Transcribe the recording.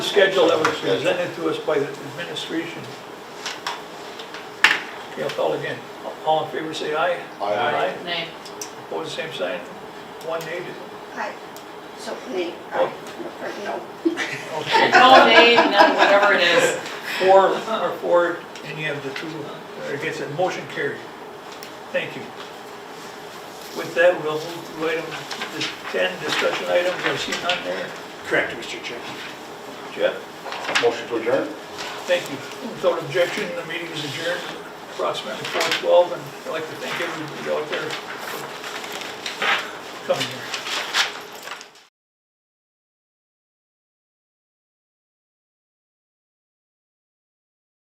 schedule that was presented to us by the administration. Okay, I'll call again. All in favor, say aye. Aye. Nay. Opposed, same sign. One native. Aye. So, nay, aye, or no. Okay, No nay, no, whatever it is. four are for it, and you have the two that are against it. Motion carried. Thank you. With that, we'll move to item dis- 10, discussion items. I see none there. Correct, Mr. Chair. Jeff, Motion to adjourn? thank you. Without objection, the meeting is adjourned approximately 4:12, and I'd like to thank everybody out there for coming here.